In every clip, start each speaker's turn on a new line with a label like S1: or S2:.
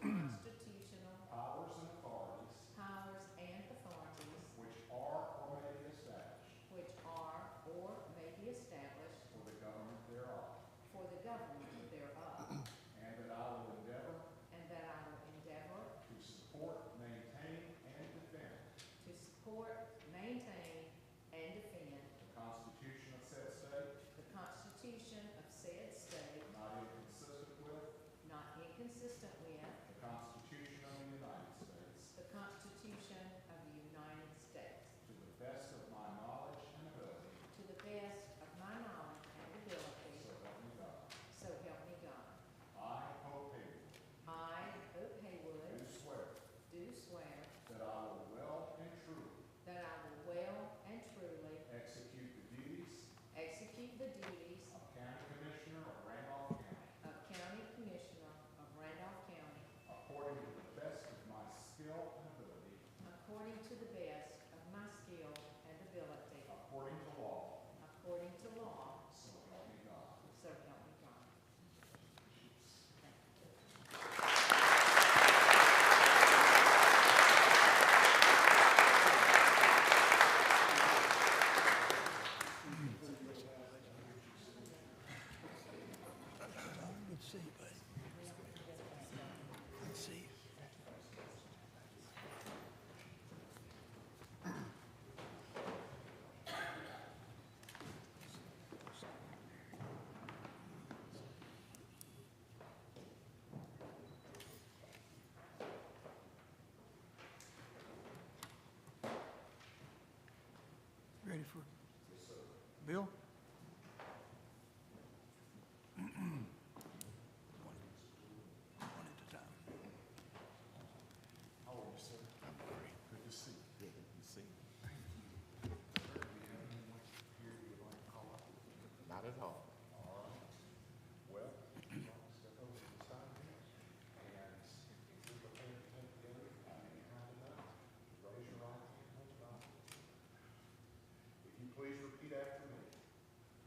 S1: constitutional
S2: powers and authorities
S1: powers and authorities
S2: which are or may be established
S1: which are or may be established
S2: for the government thereof,
S1: for the government thereof,
S2: and that I will endeavor
S1: and that I will endeavor
S2: to support, maintain, and defend
S1: to support, maintain, and defend
S2: the Constitution of said state,
S1: the Constitution of said state,
S2: not inconsistent with
S1: not inconsistent with
S2: the Constitution of the United States,
S1: the Constitution of the United States,
S2: to the best of my knowledge and ability,
S1: to the best of my knowledge and
S2: so
S1: ability,
S2: help me God.
S1: so help me God.
S2: I, Hope Higgins,
S1: I, Hope
S2: do
S1: Haywood,
S2: swear
S1: do swear
S2: that I will well and truly
S1: that I will well and truly
S2: execute the duties
S1: execute the duties
S2: of County Commissioner of Randolph County
S1: of County Commissioner of Randolph County
S2: according to the best of my skill and ability,
S1: according to the best of my skill and ability,
S2: according to law,
S1: according to law,
S2: so help me God.
S1: so help me God.
S3: Good to see you, buddy. Good to see you. Ready for? Bill? One at a time.
S2: How are you, sir? I'm great. Good to see you. Good to see you. Thank you. Do you have anyone here you would like to call up?
S4: Not at all.
S2: All right. Well, you want to step over to the side here? And if you look at it together, I mean, how about, raise your right hand, hold your right. If you please repeat after me.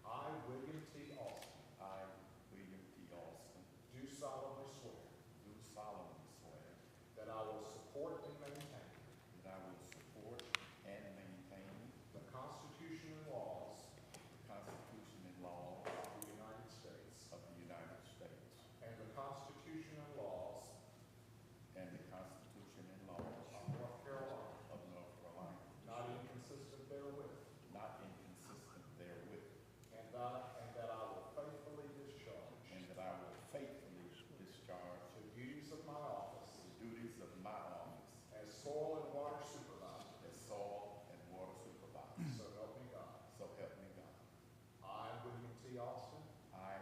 S2: I, William T. Austin,
S4: I, William T. Austin,
S2: do solemnly swear
S4: do solemnly swear
S2: that I will support and maintain
S4: that I will support and maintain
S2: the Constitution and laws
S4: the Constitution and laws
S2: of the United States
S4: of the United States
S2: and the Constitution and laws
S4: and the Constitution and laws
S2: of North Carolina,
S4: of North Carolina,
S2: not inconsistent therewith,
S4: not inconsistent therewith,
S2: And that, and that I will faithfully discharge
S4: and that I will faithfully discharge
S2: the duties of my office
S4: the duties of my office
S2: as soil and water supervisor,
S4: as soil and water supervisor.
S2: so help me God.
S4: So help me God.
S2: I, William T. Austin,
S4: I,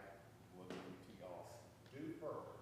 S4: William T. Austin,
S2: do further